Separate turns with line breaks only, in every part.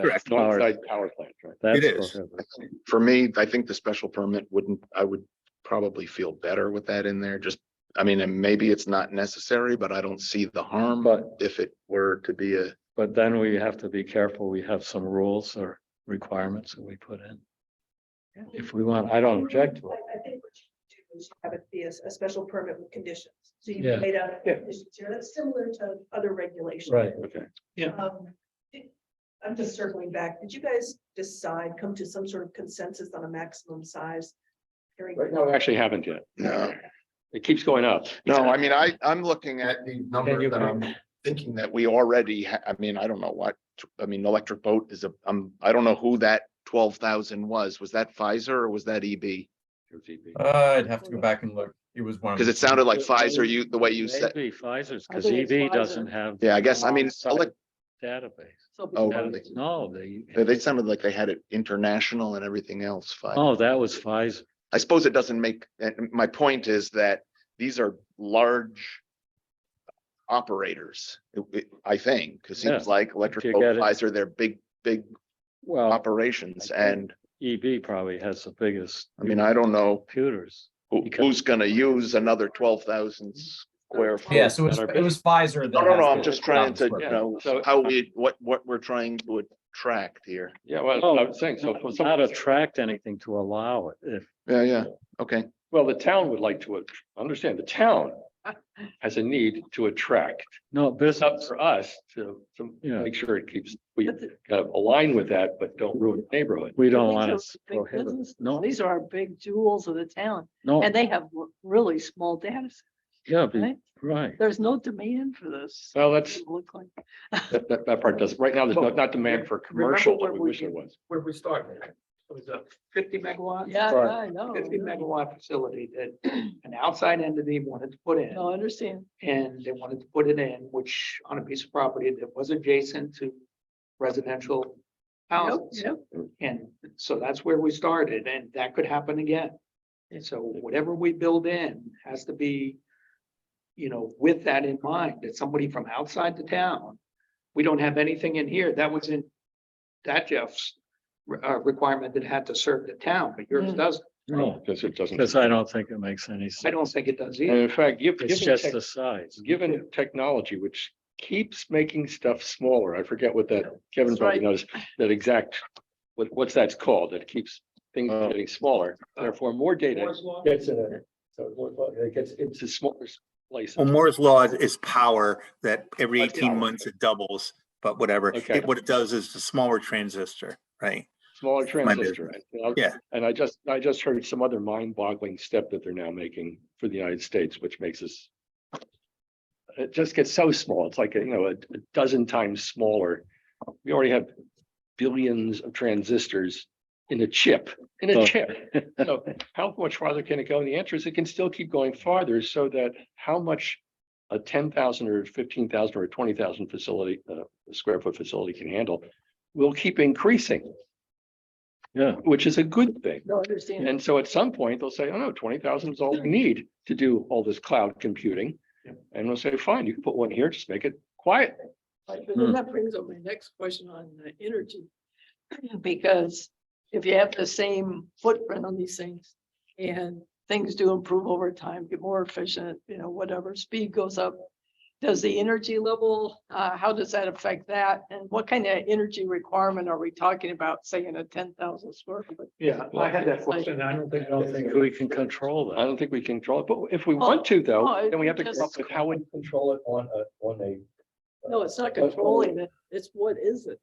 Correct.
power-
Outside power plant, right?
That's
is.
correct.
For me, I think the special permit wouldn't, I would probably feel better with that in there, just, I mean, and maybe it's not necessary, but I don't see the harm.
But-
If it were to be a,
But then we have to be careful. We have some rules or requirements that we put in. If we want, I don't object to
I,
it.
I think what you do is have it be a, a special permit with conditions. So
Yeah.
you laid out the
Yeah.
conditions here. That's similar to other regulations.
Right.
Okay.
Um, did- I'm just circling back. Did you guys decide, come to some sort of consensus on a maximum size? Hearing-
Right now, we actually haven't yet.
no,
It keeps going up.
no, I mean, I, I'm looking at these numbers
you
and I'm thinking that we already, ha- I mean, I don't know what, I mean, electric boat is a, um, I don't know who that twelve thousand was. Was that Pfizer or was that E EB?
Uh, I'd have to go back and look. It was one. of
Because
the-
it sounded like Pfizer, you, the way you said,
Maybe Pfizer's,
I
because
think it's
EV
Pfizer.
doesn't have.
yeah, I guess, I mean,
alongside
elec-
Database.
So
Oh,
between-
really?
No, they,
they- they sounded like they had it international and everything else. Pfizer.
oh, that was Pfizer.
I suppose it doesn't make, and my point is that these are large operators, it- it- I think, because seems
Yeah.
like electric
you
boat
get it.
flies are their big, big
Well,
operations.
I think-
And
EB probably has the biggest.
I mean, I don't know
Computers.
who-
Because- Mm-hmm.
who's going to use another twelve thousand square. foot.
Yeah, so it was,
That are
it was
No,
Pfizer. that
no, no,
has
I'm
the
just trying to,
dollars
you
worth.
know,
So-
how we, what, what we're trying to attract here.
Yeah, well, I
Oh,
was saying, so for some,
Not attract anything to allow it. If,
Yeah, yeah, okay.
well, the town would like to, understand, the town has a need to attract.
no,
It's up
business,
for us to, to
Yeah.
make sure it keeps, we
But the-
kind of align with that, but don't ruin the neighborhood.
we don't
these
want
are
to
big
prohibit.
businesses.
No,
These are our big jewels of the town
no,
and they have r- really small data. sets,
yeah, be-
right?
right.
There's no demand for this.
Well, that's,
it Look like.
that, that- that part does, right now, there's not, not demand for commercial, but we wish there was.
where we started. It was a fifty megawatt.
Yeah,
Right.
I know.
Fifty
I know.
megawatt facility that an outside entity wanted to put in.
No, I understand.
And they wanted to put it in, which on a piece of property that was adjacent to residential
Yep,
houses.
yep.
And so that's where we started and that could happen again. And so whatever we build in has to be, you know, with that in mind, that somebody from outside the town. We don't have anything in here that was in that Jeff's re- uh, requirement that had to serve the town, but yours
Mm.
does.
No,
Because it doesn't.
because I don't think it makes any sense.
I don't think it does
And
either.
in fact, give,
It's
given,
just
tech-
the size.
given technology, which keeps making stuff smaller, I forget what that, Kevin
That's
probably
right.
knows, that exact. What, what's that's called, that keeps things
Oh.
from getting smaller,
Uh,
therefore more data gets in it. So Moore's law, it gets into smaller places.
Well, Moore's law is- is power that every
Like, yeah.
eighteen months it doubles, but whatever. It-
Okay.
What it does is the smaller transistor, right?
Smaller
my
transistor.
business.
and I'll-
Yeah.
And I just, I just heard some other mind boggling step that they're now making for the United States, which makes us. It just gets so small. It's like, you know, a a dozen times smaller. We already have billions of transistors in a chip, in
Oh.
a chip. So how much farther can it go? And the answer is it can still keep going farther so that how much a ten thousand or fifteen thousand or twenty thousand facility, uh, square foot facility can handle will keep increasing
Yeah,
which is a good thing.
No, I understand.
And so at some point, they'll say, oh no, twenty thousand is all we need to do all this cloud computing. And we'll say, fine, you can put one here, just make it quiet.
Right, But then that brings up my next question on uh, energy. Because if you have the same footprint on these things and things do improve over time, get more efficient, you know, whatever, speed goes up. Does the energy level, uh, how does that affect that? And what kind of energy requirement are we talking about, say in a ten thousand square foot?
Yeah, I had that question. I don't think, I don't think.
we can control
I
that.
don't think we can control it, but if we want to
Oh,
though, then we have to
just-
come up with how we control it on a, on a.
No, it's not controlling it. It's what is it?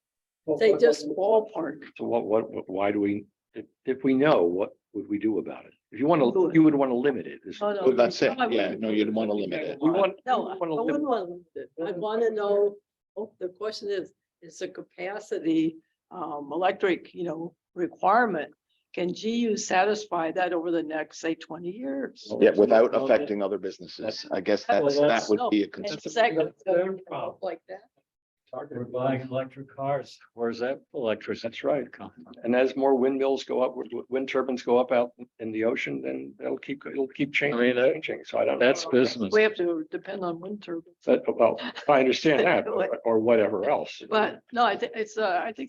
They just ballpark.
So what, what, what- why do we, if, if we know, what would we do about it? If you want to, you would want to limit it. is-
Oh, no.
Well, that's it.
No, I
Yeah,
wouldn't.
no, you'd want to limit it.
We want.
No, I
we
I
wanna limit-
wouldn't want to, I want to know, oh, the question is, is the capacity, um, electric, you know, requirement? Can GU satisfy that over the next, say, twenty years?
Yeah, without
Well,
affecting other businesses. I guess that's, that
that's-
would be a
And
concern.
is that gonna
that's
go
their problem.
Like that?
We're buying electric cars. Where's that electricity?
That's right. And as more windmills go up, w- w- wind turbines go up out in the ocean, then it'll keep, it'll keep changing,
mean, that-
changing. So I don't.
That's business.
We have to depend on wind turbines,
That, well, I understand that, or- or whatever else.
but no, I think it's, uh, I think